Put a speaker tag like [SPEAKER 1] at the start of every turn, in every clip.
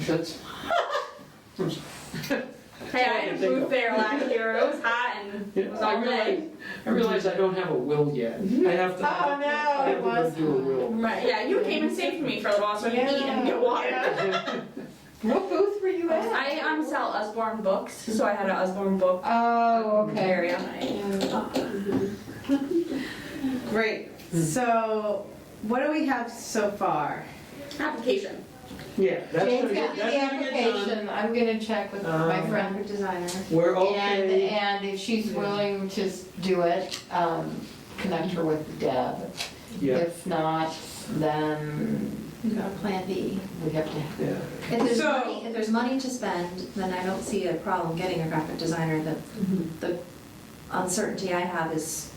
[SPEAKER 1] sense.
[SPEAKER 2] Hey, I had a booth there last year, it was hot and
[SPEAKER 1] Yeah,
[SPEAKER 2] it was
[SPEAKER 1] I
[SPEAKER 2] all day.
[SPEAKER 1] realize, I realize I don't have a will yet.
[SPEAKER 3] Mm-hmm.
[SPEAKER 1] I have to.
[SPEAKER 4] Oh, no,
[SPEAKER 1] I have to
[SPEAKER 4] it was-
[SPEAKER 1] Do a will.
[SPEAKER 2] Right, yeah, you came and saved me for a while so I could eat and get water.
[SPEAKER 4] What booth were you at?
[SPEAKER 2] I um sell Usborne books, so I had an Usborne book
[SPEAKER 4] Oh, okay.
[SPEAKER 2] area.
[SPEAKER 4] Great. So what do we have so far?
[SPEAKER 2] Application.
[SPEAKER 1] Yeah, that's gonna
[SPEAKER 3] Jane's
[SPEAKER 1] get,
[SPEAKER 3] got
[SPEAKER 1] that's
[SPEAKER 3] the
[SPEAKER 1] gonna get done.
[SPEAKER 3] application, I'm gonna check with my
[SPEAKER 1] Um,
[SPEAKER 3] friend, her designer.
[SPEAKER 1] We're
[SPEAKER 3] And,
[SPEAKER 1] okay.
[SPEAKER 3] and if she's willing to s- do it, um, connect her with Deb.
[SPEAKER 1] Yeah,
[SPEAKER 3] If not, then
[SPEAKER 5] We've got a plan B.
[SPEAKER 3] we have to,
[SPEAKER 1] yeah.
[SPEAKER 5] If there's
[SPEAKER 4] So-
[SPEAKER 5] money, if there's money to spend, then I don't see a problem getting a graphic designer. The,
[SPEAKER 1] Mm-hmm.
[SPEAKER 5] the uncertainty I have is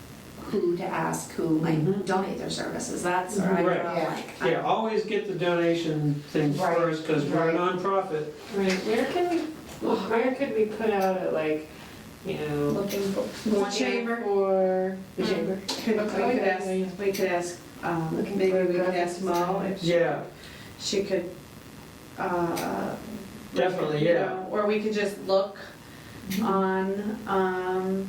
[SPEAKER 5] who to ask, who
[SPEAKER 1] Mhm.
[SPEAKER 5] might donate their services. That's where I
[SPEAKER 1] Right.
[SPEAKER 5] draw
[SPEAKER 3] Yeah.
[SPEAKER 5] like.
[SPEAKER 1] Yeah, always get the donation things
[SPEAKER 3] Right,
[SPEAKER 1] first, because we're a
[SPEAKER 3] right.
[SPEAKER 1] nonprofit.
[SPEAKER 6] Right, where can we, where could we put out a, like, you know,
[SPEAKER 2] Looking for.
[SPEAKER 4] The chamber.
[SPEAKER 6] for the chamber?
[SPEAKER 4] Could, we could ask, we could ask, um, maybe we could ask Mo if she-
[SPEAKER 1] Yeah,
[SPEAKER 4] she could, uh.
[SPEAKER 1] Definitely,
[SPEAKER 4] you
[SPEAKER 1] yeah.
[SPEAKER 4] know, Or we could just look
[SPEAKER 5] Mm-hmm.
[SPEAKER 4] on, um,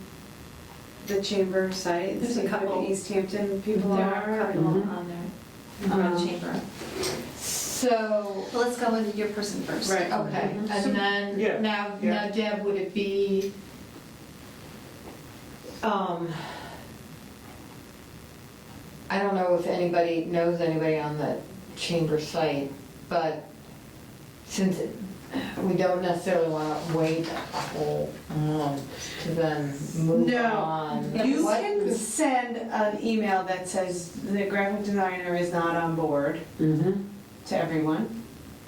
[SPEAKER 4] the chamber site.
[SPEAKER 5] There's
[SPEAKER 4] see
[SPEAKER 5] a
[SPEAKER 4] who the
[SPEAKER 5] couple.
[SPEAKER 4] East Hampton people
[SPEAKER 5] There
[SPEAKER 6] Mm-hmm.
[SPEAKER 5] are a
[SPEAKER 4] are.
[SPEAKER 5] couple
[SPEAKER 1] Mhm.
[SPEAKER 5] on there, on
[SPEAKER 1] Mm-hmm.
[SPEAKER 4] Um,
[SPEAKER 5] the chamber.
[SPEAKER 3] so,
[SPEAKER 5] Well, let's go with your person first.
[SPEAKER 4] Right.
[SPEAKER 3] okay. And
[SPEAKER 1] Yeah,
[SPEAKER 3] then, now,
[SPEAKER 1] yeah.
[SPEAKER 3] now Deb, would it be, um, I don't know if anybody knows anybody on the chamber site, but since it- we don't necessarily want to wait a whole month to then move
[SPEAKER 4] No.
[SPEAKER 3] on.
[SPEAKER 4] You
[SPEAKER 3] what-
[SPEAKER 4] can send an email that says the graphic designer is not on board
[SPEAKER 1] Mm-hmm.
[SPEAKER 4] to everyone,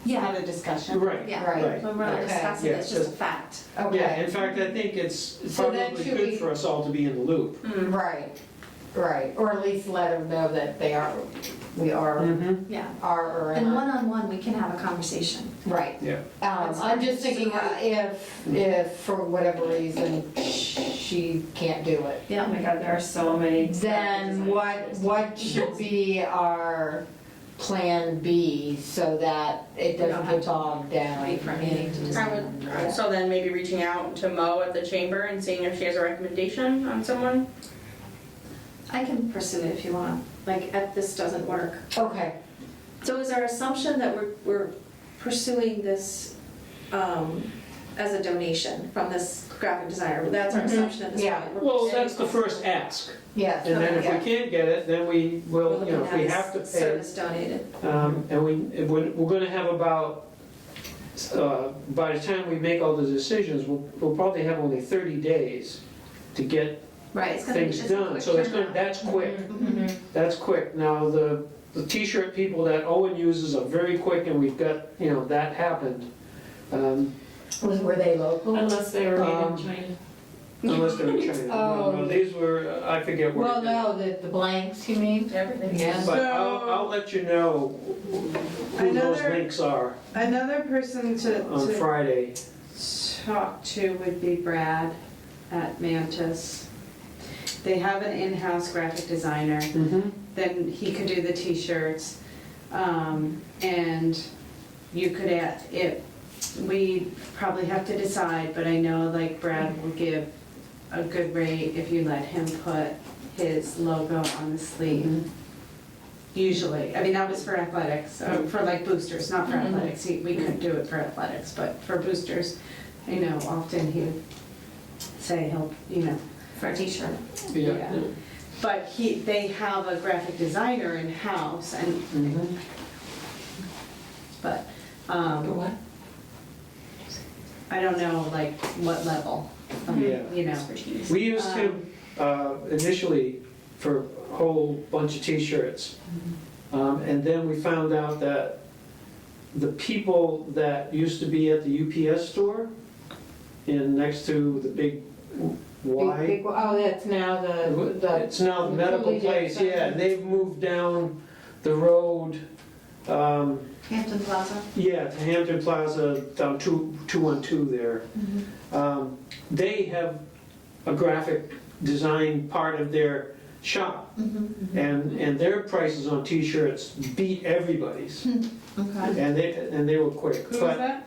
[SPEAKER 5] Yeah,
[SPEAKER 4] have a discussion.
[SPEAKER 1] Right.
[SPEAKER 5] yeah.
[SPEAKER 3] Right,
[SPEAKER 4] When
[SPEAKER 5] We're not
[SPEAKER 4] we're-
[SPEAKER 3] Okay.
[SPEAKER 5] discussing,
[SPEAKER 1] Yeah,
[SPEAKER 5] it's just a
[SPEAKER 1] just-
[SPEAKER 5] fact.
[SPEAKER 1] Yeah, in
[SPEAKER 3] okay,
[SPEAKER 1] fact, I think it's
[SPEAKER 3] So then
[SPEAKER 1] probably
[SPEAKER 3] should
[SPEAKER 1] good
[SPEAKER 3] we-
[SPEAKER 1] for us all to be in the loop.
[SPEAKER 2] Hmm.
[SPEAKER 3] right, right, or at least let them know that they are, we are,
[SPEAKER 1] Mm-hmm.
[SPEAKER 5] Yeah.
[SPEAKER 3] are or are
[SPEAKER 5] And
[SPEAKER 3] not,
[SPEAKER 5] one-on-one, we can have a conversation.
[SPEAKER 3] right.
[SPEAKER 1] Yeah.
[SPEAKER 3] Um, I'm just thinking uh, if, if for whatever reason she can't do it,
[SPEAKER 6] Oh
[SPEAKER 5] Yeah.
[SPEAKER 6] my god, there are so many.
[SPEAKER 3] then what, what should be our plan B so that it
[SPEAKER 5] don't
[SPEAKER 3] doesn't
[SPEAKER 5] have
[SPEAKER 3] get bogged down?
[SPEAKER 5] wait for a meeting to
[SPEAKER 3] in-
[SPEAKER 2] I would, so then maybe reaching out to Mo at the chamber and seeing if she has a recommendation on someone.
[SPEAKER 5] I can pursue it if you want, like, if this doesn't work.
[SPEAKER 3] Okay,
[SPEAKER 5] So is our assumption that we're, we're pursuing this um, as a donation from this graphic designer? That's our
[SPEAKER 3] Mhm.
[SPEAKER 5] assumption at this
[SPEAKER 3] Yeah.
[SPEAKER 5] point? We're
[SPEAKER 1] Well,
[SPEAKER 5] pursuing
[SPEAKER 1] that's the first ask.
[SPEAKER 3] yes,
[SPEAKER 1] And then if
[SPEAKER 3] okay,
[SPEAKER 1] we can't get it, then we
[SPEAKER 5] We're
[SPEAKER 1] will, you
[SPEAKER 5] looking
[SPEAKER 1] know, if
[SPEAKER 5] at
[SPEAKER 1] we
[SPEAKER 5] this
[SPEAKER 1] have to pay.
[SPEAKER 5] Service donated.
[SPEAKER 1] Um, And we, and we're we're gonna have about, uh, by the time we make all the decisions, we'll we'll probably have only 30 days to get
[SPEAKER 5] Right. it's gonna be-
[SPEAKER 1] things
[SPEAKER 5] it's a
[SPEAKER 1] done.
[SPEAKER 5] quick
[SPEAKER 1] So it's gonna,
[SPEAKER 5] turnaround. Mm-hmm.
[SPEAKER 1] that's quick,
[SPEAKER 3] Mhm.
[SPEAKER 1] that's quick. Now, the, the t-shirt people that Owen uses are very quick and we've got, you know, that happened. Um,
[SPEAKER 3] Mm-hmm. Was, were they local?
[SPEAKER 6] Unless they were made
[SPEAKER 1] Um,
[SPEAKER 6] in China.
[SPEAKER 1] Unless they're in China. No, no,
[SPEAKER 3] Oh.
[SPEAKER 1] These were, uh, I forget where.
[SPEAKER 3] Well,
[SPEAKER 1] they-
[SPEAKER 3] no, the, the blanks, you mean?
[SPEAKER 2] Everything.
[SPEAKER 3] Yeah.
[SPEAKER 1] But I'll,
[SPEAKER 4] So-
[SPEAKER 1] I'll let you know who those
[SPEAKER 4] Another-
[SPEAKER 1] links are
[SPEAKER 4] Another person to,
[SPEAKER 1] on
[SPEAKER 4] to
[SPEAKER 1] Friday.
[SPEAKER 4] talk to would be Brad at Mantis. They have an in-house graphic designer,
[SPEAKER 1] Mm-hmm.
[SPEAKER 4] then he could do the t-shirts. Um, and you could add, it, we probably have to decide, but I know like Brad will give a good rate if you let him put his logo on the sleeve.
[SPEAKER 1] Mm-hmm.
[SPEAKER 4] Usually, I mean, that was for athletics, uh, for like boosters, not for
[SPEAKER 2] Mhm.
[SPEAKER 4] athletics, He- we could do it for athletics, but for boosters, you know, often he would say he'll, you know,
[SPEAKER 5] For a t-shirt.
[SPEAKER 1] Yeah.
[SPEAKER 4] Yeah. but he, they have a graphic designer in-house and,
[SPEAKER 1] Mhm.
[SPEAKER 4] but, um,
[SPEAKER 5] what?
[SPEAKER 4] I don't know, like, what level, um,
[SPEAKER 1] Yeah.
[SPEAKER 4] you know. Um,
[SPEAKER 2] Expertise.
[SPEAKER 1] We used him uh, initially for a whole bunch of t-shirts. Um, And then we found out that the people that used to be at the UPS store in, next to the big
[SPEAKER 3] Big-
[SPEAKER 1] Y.
[SPEAKER 3] big- Oh, that's now the, the
[SPEAKER 1] It's now the medical
[SPEAKER 3] Julie
[SPEAKER 1] place,
[SPEAKER 3] Jackson.
[SPEAKER 1] yeah, and they've moved down the road, um,
[SPEAKER 5] Hampton Plaza.
[SPEAKER 1] yeah, to Hampton Plaza, down two, two-one-two there.
[SPEAKER 5] Mm-hmm.
[SPEAKER 1] Um, They have a graphic design part of their shop,
[SPEAKER 5] Mhm.
[SPEAKER 1] and, and their prices on t-shirts beat everybody's.
[SPEAKER 7] Okay.
[SPEAKER 8] And they, and they were quick.
[SPEAKER 1] Who was
[SPEAKER 8] But
[SPEAKER 1] that?